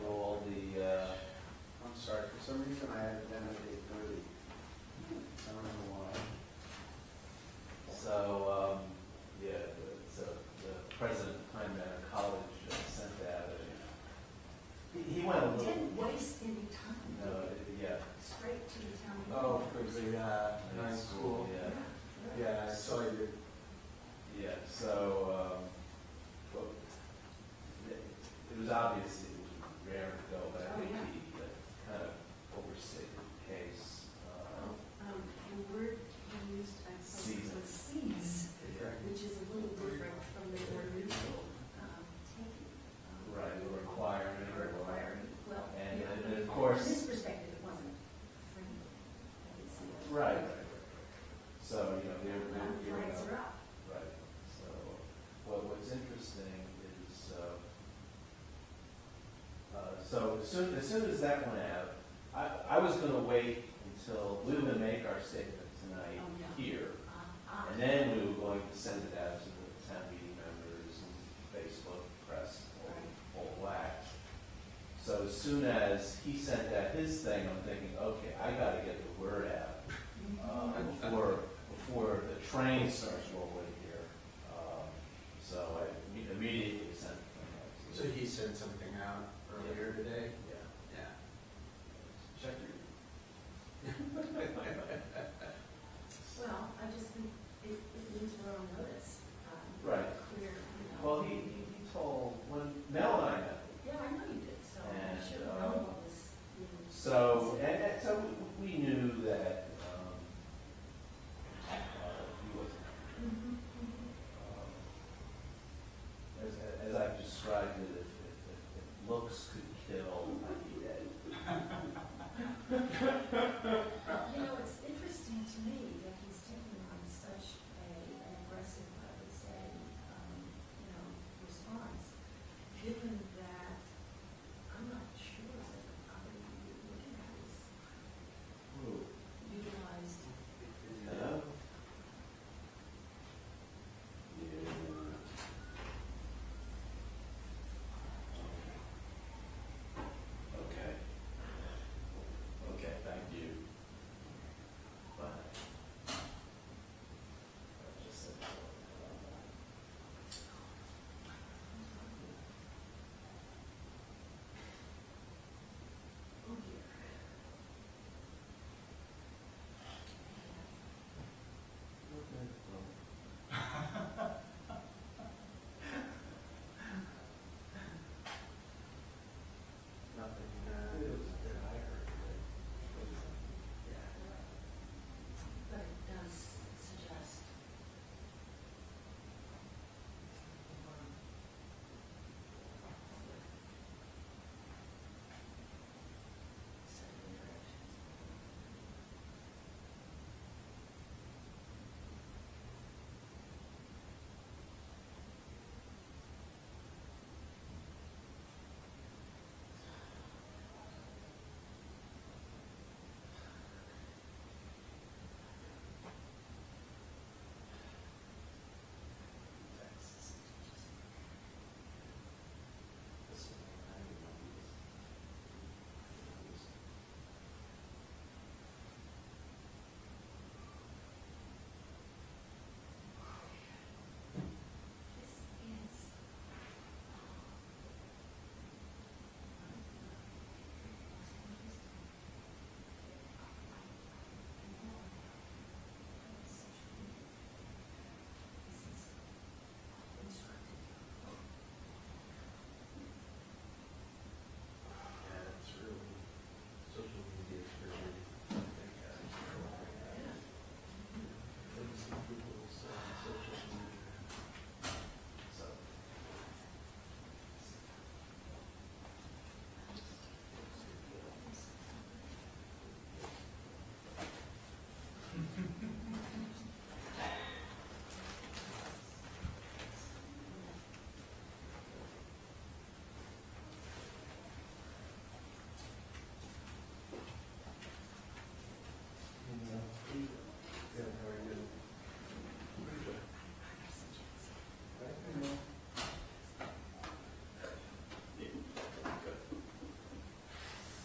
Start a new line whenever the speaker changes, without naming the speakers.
uh, um, uh, well, the-
Didn't waste any time,
no, it- yeah.
straight to the town.
Oh, for the, uh, high school.
Yeah,
Yeah, I saw you.
yeah, so, um, well, it it was obvious it was rare to go, but I
Oh,
think
yeah.
he, like, kind of overstated the case.
Um,
um,
the word he used, I suppose, was seize,
yeah.
which is a little different from the more usual, um, taking. um,
Right, the requirement, or
the
whatever.
Requirement, well.
And-
yeah,
and
I
of
mean,
course-
From his perspective, it wasn't friendly. I could see that.
Right. right, right, right. So, you know, they were,
Um,
they were, you know,
flags are up.
right. So, what, what's interesting is, uh, uh, so as soon, as soon as that went out, I, I was gonna wait until, we were gonna make our statement tonight
Oh, yeah.
here.
Uh, uh,
And then we were going to send it out to the town meeting members and Facebook press, all, all that. So as soon as he sent out his thing, I'm thinking, okay, I gotta get the word out uh, before, before the train starts rolling here. Um, So I imme- immediately sent the thing out. to
So he sent something out earlier today?
Yeah.
Yeah.
Check your.
Well, I just think it, it means we're on notice. um,
Right.
Clear, you know.
Well, he, he he told, when Mel and I met,
Yeah, I know you did, so I
And,
should
uh,
have known what was. being
So um, uh, um, Hmm.
um,
uh, uh,
Mm-hmm.